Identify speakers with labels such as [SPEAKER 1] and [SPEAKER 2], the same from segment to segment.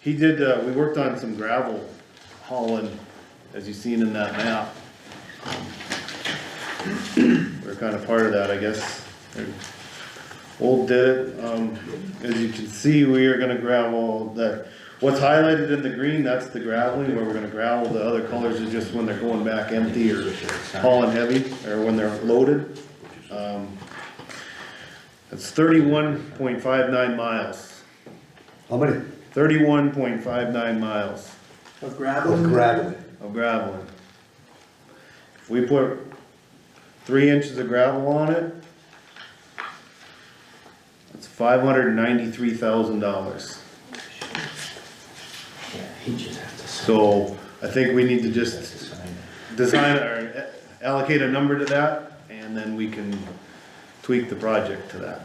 [SPEAKER 1] He did, uh, we worked on some gravel hauling, as you've seen in that map. We're kind of part of that, I guess. Old did it, um, as you can see, we are gonna gravel that, what's highlighted in the green, that's the graveling, where we're gonna gravel, the other colors are just when they're going back empty or hauling heavy, or when they're loaded. Um, That's thirty-one point five nine miles.
[SPEAKER 2] How many?
[SPEAKER 1] Thirty-one point five nine miles
[SPEAKER 3] Of gravel?
[SPEAKER 2] Gravel.
[SPEAKER 1] of gravel. If we put three inches of gravel on it, that's five hundred and ninety-three thousand dollars.
[SPEAKER 4] Yeah, he just has to sign.
[SPEAKER 1] So I think we need to
[SPEAKER 4] has to
[SPEAKER 1] just
[SPEAKER 4] sign it.
[SPEAKER 1] design or allocate a number to that, and then we can tweak the project to that,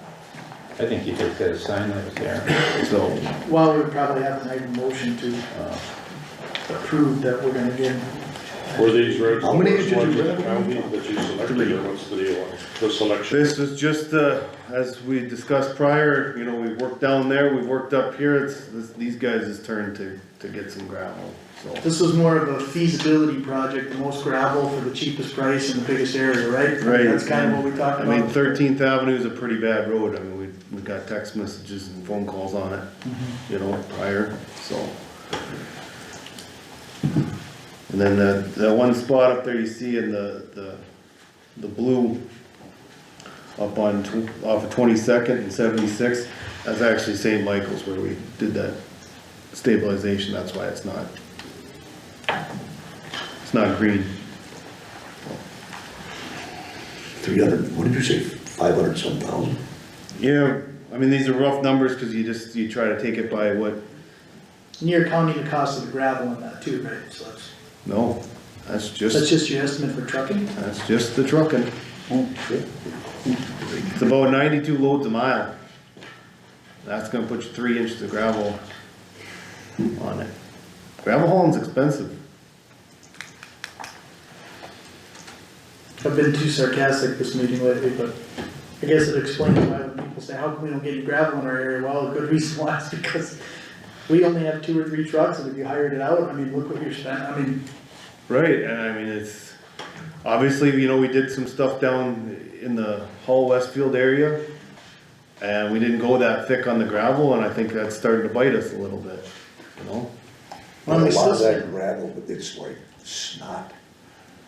[SPEAKER 4] I think you just gotta sign that was there.
[SPEAKER 1] so.
[SPEAKER 3] Well, we probably have to make a motion to uh, approve that we're gonna give.
[SPEAKER 5] Were these roads the
[SPEAKER 2] How many
[SPEAKER 5] worst
[SPEAKER 2] did you
[SPEAKER 5] ones in
[SPEAKER 2] rent?
[SPEAKER 5] the county that you selected, or what's the deal on the selection?
[SPEAKER 1] This is just, uh, as we discussed prior, you know, we've worked down there, we've worked up here, it's, this- these guys' turn to, to get some gravel, so.
[SPEAKER 3] This was more of a feasibility project, the most gravel for the cheapest price in the biggest area, right?
[SPEAKER 1] Right.
[SPEAKER 3] That's kind of what we talked
[SPEAKER 1] I mean,
[SPEAKER 3] about.
[SPEAKER 1] Thirteenth Avenue is a pretty bad road, I mean, we, we got text messages and phone calls on it, you know, prior, so. And then the, that one spot up there you see in the, the, the blue up on, tw- off of Twenty-second and Seventy-six, that's actually St. Michael's where we did that stabilization, that's why it's not, it's not green.
[SPEAKER 2] Three hundred, what did you say, five hundred some thousand?
[SPEAKER 1] Yeah, I mean, these are rough numbers, cause you just, you try to take it by what,
[SPEAKER 3] Near counting the cost of the gravel in that too, right? So that's,
[SPEAKER 1] no, that's
[SPEAKER 3] that's
[SPEAKER 1] just,
[SPEAKER 3] just your estimate for trucking?
[SPEAKER 1] that's just the trucking. It's about ninety-two loads a mile. That's gonna put you three inches of gravel on it. Gravel hauling's expensive.
[SPEAKER 3] I've been too sarcastic this meeting lately, but I guess it explains why when people say, how come we don't get any gravel in our area? Well, a good reason why is because we only have two or three trucks, and if you hired it out, I mean, look what you're spending, I mean,
[SPEAKER 1] Right, and I mean, it's, obviously, you know, we did some stuff down in the Hall Westfield area. And we didn't go that thick on the gravel, and I think that's starting to bite us a little bit, you know?
[SPEAKER 2] A
[SPEAKER 3] Well, it's
[SPEAKER 2] lot of
[SPEAKER 3] just-
[SPEAKER 2] that gravel, but it's like snot,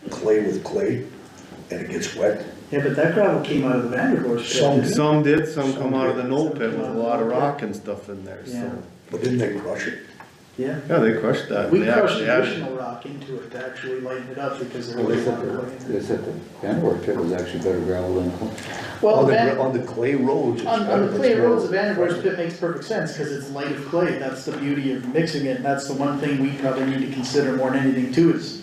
[SPEAKER 2] clay with clay, and it gets wet.
[SPEAKER 3] yeah, but that gravel came out of the Vanderbilt pit.
[SPEAKER 2] Some-
[SPEAKER 3] didn't it?
[SPEAKER 1] Some did, some come
[SPEAKER 2] Some
[SPEAKER 1] out of the
[SPEAKER 3] did.
[SPEAKER 1] knoll
[SPEAKER 3] Some
[SPEAKER 1] pit
[SPEAKER 3] come
[SPEAKER 1] with a
[SPEAKER 3] out of the
[SPEAKER 1] lot of
[SPEAKER 3] knoll pit.
[SPEAKER 1] rock and stuff in there, so.
[SPEAKER 2] But didn't they crush it?
[SPEAKER 3] Yeah,
[SPEAKER 1] Yeah, they crushed that.
[SPEAKER 3] we
[SPEAKER 1] They
[SPEAKER 3] crushed
[SPEAKER 1] actually had-
[SPEAKER 3] additional rock into it to actually lighten it up because there
[SPEAKER 6] Well,
[SPEAKER 3] was
[SPEAKER 6] they
[SPEAKER 3] a lot
[SPEAKER 6] said
[SPEAKER 3] of
[SPEAKER 6] the,
[SPEAKER 3] clay.
[SPEAKER 6] they said the Vanderwerf pit was actually better gravel than, Cl-
[SPEAKER 3] Well,
[SPEAKER 2] On the,
[SPEAKER 3] the Van-
[SPEAKER 2] gra- on the clay roads. it's
[SPEAKER 3] on, on
[SPEAKER 2] better,
[SPEAKER 3] the clay
[SPEAKER 2] it's
[SPEAKER 3] roads, the
[SPEAKER 2] better.
[SPEAKER 3] Vanderbilt pit makes perfect sense, cause it's light of clay, that's the beauty of mixing it, and that's the one thing we probably need to consider more than anything too, is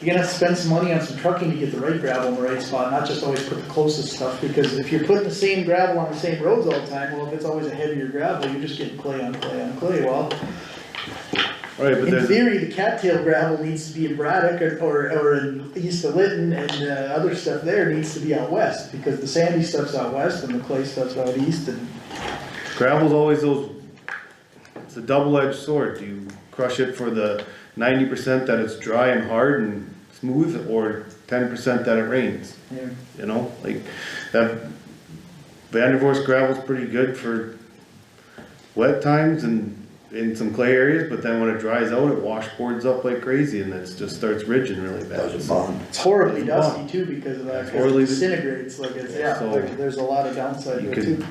[SPEAKER 3] you're gonna have to spend some money on some trucking to get the right gravel in the right spot, not just always put the closest stuff, because if you're putting the same gravel on the same roads all the time, well, if it's always a heavier gravel, you're just getting clay on clay on clay, well,
[SPEAKER 1] Right, but
[SPEAKER 3] In
[SPEAKER 1] there's,
[SPEAKER 3] theory, the cattail gravel needs to be in Braddock or- or, or in east of Lytton and the other stuff there needs to be out west because the sandy stuff's out west and the clay stuff's out east and.
[SPEAKER 1] gravel's always those, it's a double-edged sword. Do you crush it for the ninety percent that it's dry and hard and smooth, or ten percent that it rains? You know, like, that, Vandervoorst gravel's pretty good for wet times and in some clay areas, but then when it dries out, it washboards up like crazy and it just starts ridging really
[SPEAKER 2] That was a
[SPEAKER 1] bad.
[SPEAKER 2] bond.
[SPEAKER 3] It's horribly dusty too because of that,
[SPEAKER 1] It's
[SPEAKER 3] because
[SPEAKER 1] horribly-
[SPEAKER 3] it disintegrates like it's, yeah,
[SPEAKER 1] So-
[SPEAKER 3] there- there's a lot of downside
[SPEAKER 1] You
[SPEAKER 3] to it
[SPEAKER 1] can-
[SPEAKER 3] too.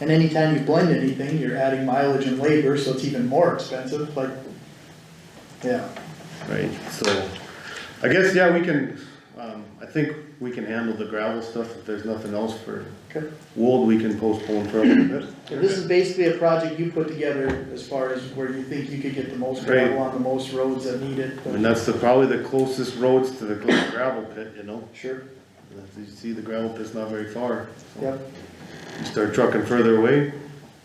[SPEAKER 3] And anytime you blend anything, you're adding mileage and labor, so it's even more expensive, like, yeah.
[SPEAKER 1] Right, so, I guess, yeah, we can, um, I think we can handle the gravel stuff, if there's nothing else for
[SPEAKER 3] Okay.
[SPEAKER 1] Wold, we can postpone for a little bit.
[SPEAKER 3] So This is basically a project you put together as far as where you think you could get the most gravel on the most roads that need it.
[SPEAKER 1] And that's the, probably the closest roads to the closest gravel pit, you know,
[SPEAKER 3] Sure.
[SPEAKER 1] As you see, the gravel pit's not very far. so.
[SPEAKER 3] Yep,
[SPEAKER 1] You Start trucking further away,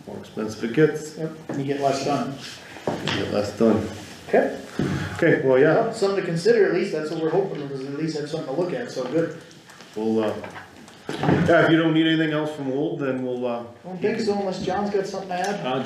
[SPEAKER 1] more expensive it gets,
[SPEAKER 3] yep, and you get less done.
[SPEAKER 1] you get less done.
[SPEAKER 3] Okay,
[SPEAKER 1] Okay, well, yeah,
[SPEAKER 3] well, something to consider at least, that's what we're hoping, is at least have something to look at, so good.
[SPEAKER 1] we'll, uh, yeah, if you don't need anything else from Wold, then we'll, uh,
[SPEAKER 3] I don't think so unless John's got something to add.